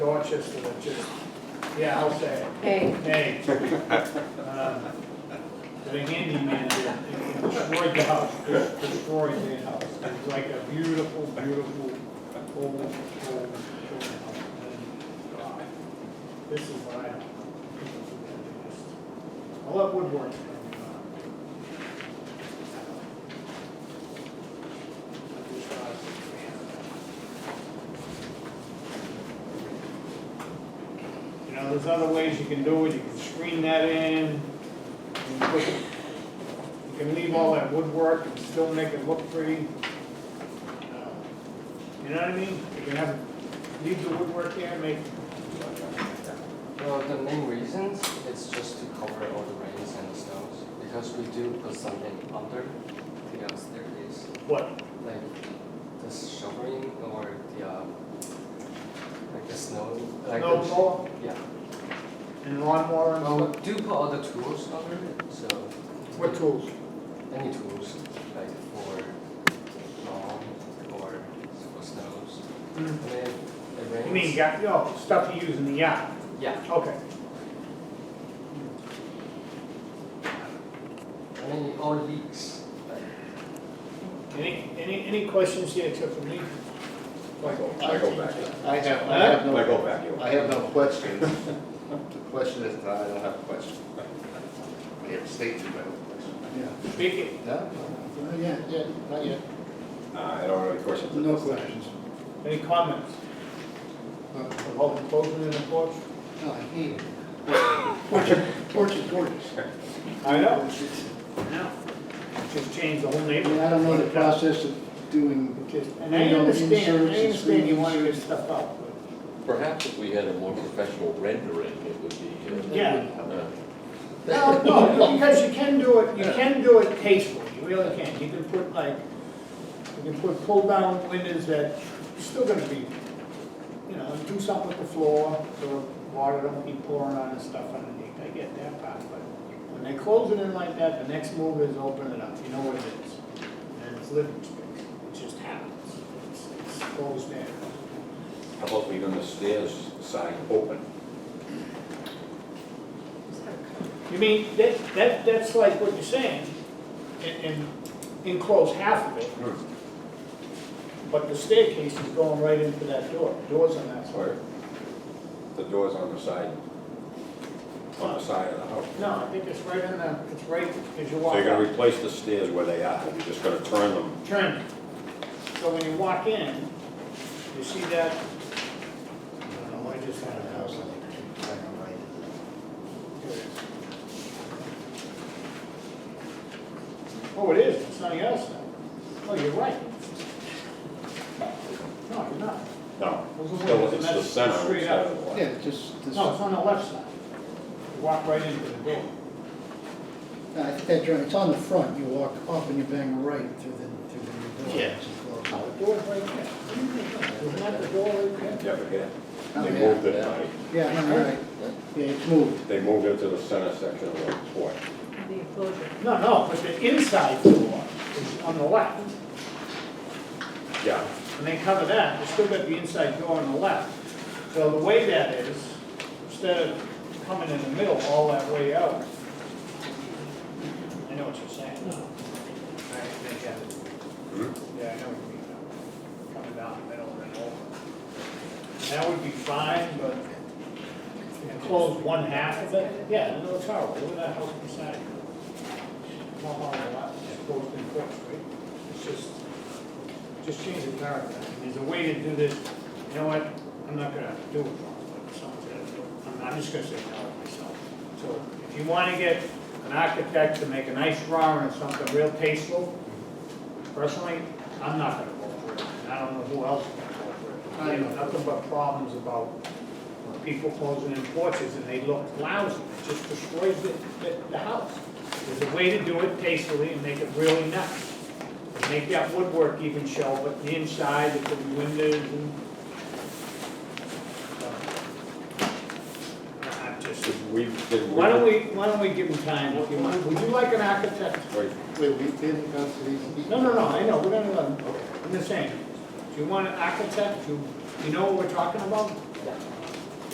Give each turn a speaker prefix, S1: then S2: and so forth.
S1: Dorchester that just, yeah, I'll say it.
S2: Hey,
S1: Hey. um, The handyman here, it destroyed the house, it destroyed the house. It's like a beautiful, beautiful, old, old, old house. And, God, This is what I don't want. I'll let woodwork. You know, there's other ways you can do it, you can screen that in, you can put- you can leave all that woodwork and still make it look pretty. Uh, You know what I mean? You can have, leave the woodwork there, make,
S3: Well, the main reasons it's just to cover all the rains and the snows because we do put something under the uh, staircase,
S1: what,
S3: like the shovering or the um, like the snow, like
S1: snow
S3: the,
S1: blower
S3: yeah.
S1: and lawnmower and
S3: Well,
S1: all
S3: we do put all the tools under it, so
S1: that? What tools?
S3: any tools like for lawn or for snows.
S1: You
S3: And then it rains.
S1: mean, got, no, stuff you use in the yard,
S3: yeah,
S1: okay.
S3: and then it all leaks. Like,
S1: Any, any, any questions here except for me?
S4: Michael,
S5: Michael Vecchio.
S4: I have, I have
S5: Michael
S4: no,
S5: Vecchio.
S4: I have no questions. The question is, I don't have a question. I have stated my own question.
S6: Yeah,
S1: Speak it.
S4: No?
S6: not yet,
S4: Yeah, not yet.
S5: Uh, I don't have any questions.
S6: no questions.
S1: Any comments?
S6: Uh,
S1: About the closing in the porch?
S6: No, I hate it. Torture, torture, torture.
S1: I know.
S6: I
S1: No. Just change the whole
S6: mean,
S1: neighborhood.
S6: I don't know the process of doing,
S1: And I
S6: You know,
S1: understand, I
S6: inserts and
S1: understand you want to get
S6: screens.
S1: stuff out.
S7: Perhaps if we had a more professional rendering, it would
S1: but-
S7: be.
S1: Yeah.
S7: uh, uh,
S1: No, no, because you can do it, you can do it tastefully, you really can. You can put like, you can put pull-down windows that, you're still gonna be, you know, do something with the floor, so water don't be pouring on and stuff underneath. I get that part, but when they close it in like that, the next move is open it up. You know what it is. And it's living space. It just happens. It's- It's closed there.
S5: How about leaving the stairs sign open?
S1: You mean, that, that, that's like what you're saying, and, and enclose half of it, but the staircase is going right into that door, doors on that side.
S5: Or the doors on the side, on the side of the house?
S1: No, I think it's right in the, it's right as you
S5: So
S1: walk
S5: you're gonna
S1: out.
S5: replace the stairs where they are, you're just gonna turn them,
S1: Turn. So when you walk in, you see that, I don't know, I just had a house like this. Oh, it is, it's on the other side. Oh, you're right. No, you're not.
S5: no,
S1: Those are
S5: still,
S1: windows, and
S5: it's the
S1: that's
S5: center
S1: straight
S5: instead
S1: up.
S5: of the left.
S6: yeah, just, this-
S1: No, it's on the left side. You walk right into the door.
S6: I think that, drawing- it's on the front, you walk up and you bang right through the, through the door.
S1: Yeah.
S6: It's a
S1: No,
S6: close.
S1: the door's right there. Isn't that the door right there?
S5: Yeah, but yeah,
S6: Oh,
S5: they
S6: yeah.
S5: moved it, like,
S6: Yeah, I know, right, yeah, it's moved,
S5: they moved it to the center section of the porch.
S2: the enclosure.
S1: No, no, but the inside door is on the left.
S5: Yeah,
S1: And they cover that, they still got the inside door on the left. So the way that is, instead of coming in the middle all that way out, I know what you're saying. I- I get it.
S5: Hmm?
S1: Yeah, I know what you mean. now. Coming down the middle and then over. That would be fine, but enclose one half of it, yeah, no, it's horrible, look at that house beside you. Not horrible, lot, it's closed in court, right? It's just, just change the paragraph. There's a way to do this, you know what, I'm not gonna do it, but something, I'm, I'm just gonna say no myself. So if you wanna get an architect to make a nice drawing of something real tasteful, personally, I'm not gonna vote for it, and I don't know who else is gonna vote for it. I have nothing but problems about people closing in porches and they look lousy, it just destroys the, the, the house. There's a way to do it tastefully and make it really nice. And Make that woodwork even show, but the inside, the windows and. uh, I'm just,
S5: Did we, did we?
S1: why don't we, why don't we give them time if you want, would you like an architect?
S5: Wait,
S4: Wait, we didn't go through these.
S1: No, no, no, I know, we're gonna, um, I'm just saying, do you want an architect, do you know what we're talking about?